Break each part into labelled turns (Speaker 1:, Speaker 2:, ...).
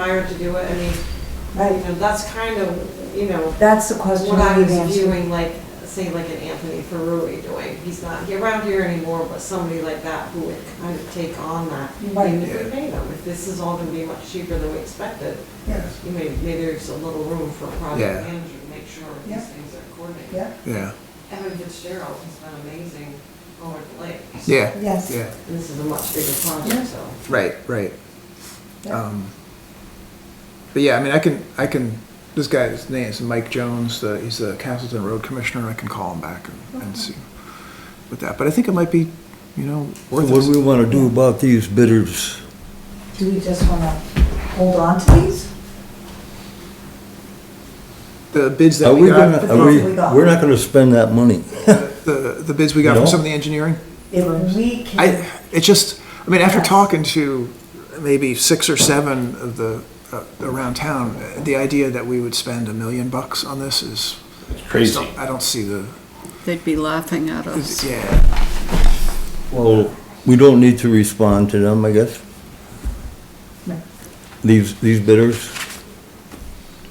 Speaker 1: desire to do it, I mean, you
Speaker 2: Right,
Speaker 1: know, that's kind of, you know,
Speaker 2: that's the question
Speaker 1: what I
Speaker 2: we've
Speaker 1: was
Speaker 2: answered.
Speaker 1: viewing, like, say, like an Anthony Ferrui doing, he's not here- around here anymore, but somebody like that who would kind of take on that.
Speaker 2: Right.
Speaker 1: Maybe we pay them, if this is all gonna be much cheaper than we expected,
Speaker 3: Yes,
Speaker 1: you may, maybe there's a little room for a
Speaker 3: Yeah.
Speaker 1: project manager to make sure
Speaker 2: Yeah.
Speaker 1: these things are coordinated.
Speaker 2: Yeah,
Speaker 3: yeah,
Speaker 1: Evan Fitzgerald has been amazing over the lake.
Speaker 3: yeah.
Speaker 2: Yes.
Speaker 3: Yeah,
Speaker 1: And This is a much bigger
Speaker 2: Yeah.
Speaker 1: project, so.
Speaker 3: right, right.
Speaker 2: Yeah.
Speaker 3: Um, But yeah, I mean, I can, I can, this guy's name is Mike Jones, the, he's the Castleton Road Commissioner, I can call him back and, and see with that, but I think it might be, you know,
Speaker 4: So
Speaker 3: worth
Speaker 4: What do we
Speaker 3: it.
Speaker 4: want to do about these bidders?
Speaker 2: do we just want to hold on to these?
Speaker 3: The bids that
Speaker 4: Are
Speaker 3: we
Speaker 4: we gonna,
Speaker 3: got,
Speaker 4: are we, we're not gonna spend that money.
Speaker 3: the, the bids we got from
Speaker 4: No.
Speaker 3: some of the engineering,
Speaker 2: If we can,
Speaker 3: I, it's just, I mean, after
Speaker 2: Yes.
Speaker 3: talking to maybe six or seven of the, uh, around town, uh, the idea that we would spend a million bucks on this is,
Speaker 5: Crazy.
Speaker 3: I don't see the,
Speaker 6: They'd be laughing at us.
Speaker 3: yeah.
Speaker 4: Well, we don't need to respond to them, I guess.
Speaker 2: No.
Speaker 4: These, these bidders,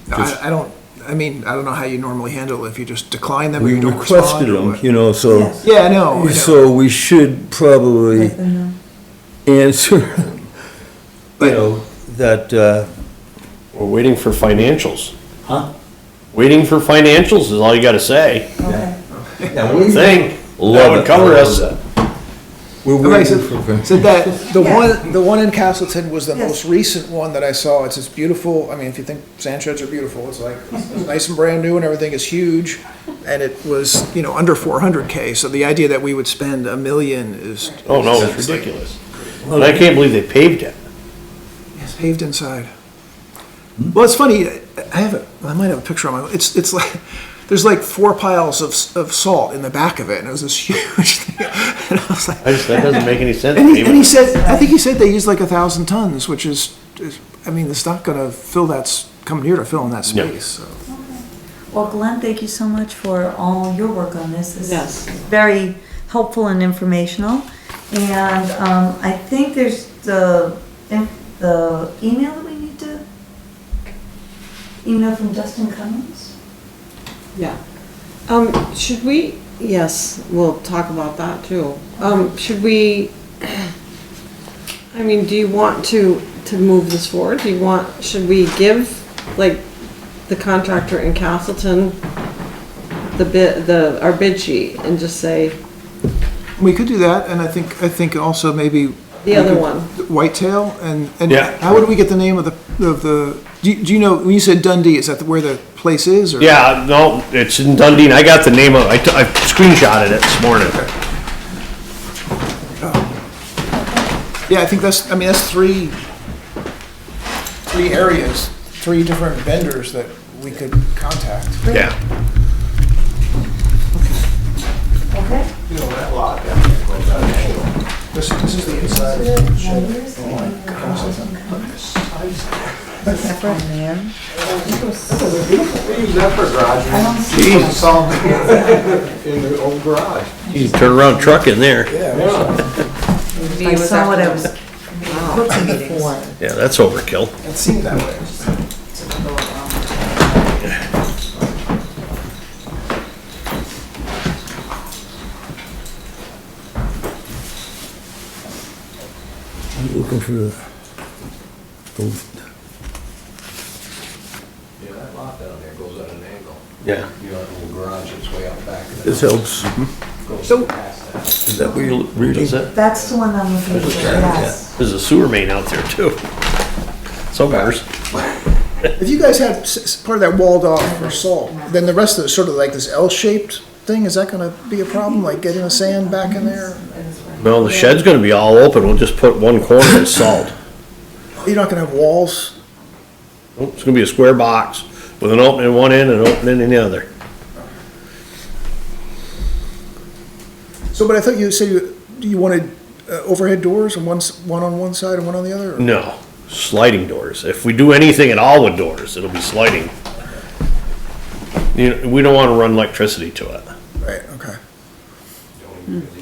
Speaker 3: No,
Speaker 4: Just-
Speaker 3: I, I don't, I mean, I don't know how you normally handle it, if you just decline them or
Speaker 4: we
Speaker 3: you don't respond.
Speaker 4: requested
Speaker 3: or
Speaker 4: them,
Speaker 3: what.
Speaker 4: you know, so,
Speaker 2: Yes.
Speaker 3: Oh, Yeah, I know, I know.
Speaker 4: so we should probably
Speaker 2: let them know.
Speaker 4: answer, you
Speaker 3: But-
Speaker 4: know, that, uh,
Speaker 5: We're waiting for financials.
Speaker 4: Huh?
Speaker 5: Waiting for financials is all you gotta say.
Speaker 2: okay,
Speaker 5: Thing, that
Speaker 4: Love it.
Speaker 5: would cover
Speaker 4: I love
Speaker 5: us.
Speaker 4: that. we're
Speaker 3: Okay,
Speaker 4: waiting for
Speaker 3: so, so that, the
Speaker 2: Yeah.
Speaker 3: one, the one in Castleton was the
Speaker 2: Yes.
Speaker 3: most recent one that I saw, it's this beautiful, I mean, if you think sand sheds are beautiful, it's like, it's nice and brand new and everything is huge, and it was, you know, under four hundred K, so the idea that we would spend a million is.
Speaker 5: Oh, no, it's
Speaker 3: like-
Speaker 5: ridiculous. And I can't believe they paved it.
Speaker 3: It's paved inside.
Speaker 5: Hmm?
Speaker 3: Well, it's funny, I have, a- I might have a picture on my, it's, it's like, there's like four piles of, s- of salt in the back of it, and it was this huge thing. And I was like,
Speaker 5: I just, that doesn't make any sense.
Speaker 3: and he, and he
Speaker 5: Paving-
Speaker 3: said, I think he said they used like a thousand tons, which is, is, I mean, it's not gonna fill that, s- come near to filling that
Speaker 5: No.
Speaker 3: space, so.
Speaker 2: well, Glenn, thank you so much for all your work on this. This
Speaker 1: Yes.
Speaker 2: is very helpful and informational. And um, I think there's the, the email that we need to, email from Dustin Cummings?
Speaker 1: Yeah. Um, should we, yes, we'll talk about that too. Um, should we, I mean, do you want to, to move this forward? Do you want, should we give, like, the contractor in Castleton the bid, the, our bid sheet and just say,
Speaker 3: We could do that, and I think, I think also maybe.
Speaker 1: The other one.
Speaker 3: Whitetail, and, and
Speaker 5: Yeah.
Speaker 3: how would we get the name of the, of the, do you, do you know, when you said Dundee, is that where the place is, or?
Speaker 5: Yeah, no, it's in Dundee, and I got the name of, I t- I screenshotted it this morning.
Speaker 3: Yeah, I think that's, I mean, that's three, three areas, three different vendors that we could contact.
Speaker 5: Yeah,
Speaker 2: Okay.
Speaker 3: You know, that lot down there goes out of angle. This, this is the inside.
Speaker 7: We use that for garage,
Speaker 2: I don't see,
Speaker 7: we saw in the old garage.
Speaker 5: you can turn around truck in there.
Speaker 2: I saw what I was looking for.
Speaker 5: Yeah, that's overkill.
Speaker 3: It seemed that way.
Speaker 4: I'm looking for the, those-
Speaker 7: Yeah, that lot down there goes at an angle.
Speaker 5: Yeah.
Speaker 7: You know, the old garage is way out back. and it
Speaker 4: this helps.
Speaker 3: So-
Speaker 7: Goes past that.
Speaker 4: Is that what you're reading?
Speaker 5: Is that,
Speaker 2: That's the one I'm looking for, yes.
Speaker 5: there's a sewer main out there too. Somewheres.
Speaker 3: If you guys had s- s- part of that walled off for salt, then the rest of it's sort of like this L-shaped thing, is that gonna be a problem, like getting the sand back in there?
Speaker 5: No, the shed's gonna be all open, we'll just put one corner as salt.
Speaker 3: You're not gonna have walls?
Speaker 5: Oh, It's gonna be a square box with an opening in one end and an opening in the other.
Speaker 3: So, but I thought you said you, you wanted uh, overhead doors and one, s- one on one side and one on the other? or-
Speaker 5: No, sliding doors. If we do anything at all with doors, it'll be sliding. You know, we don't wanna run electricity to it.
Speaker 3: Right, okay.
Speaker 7: You don't even really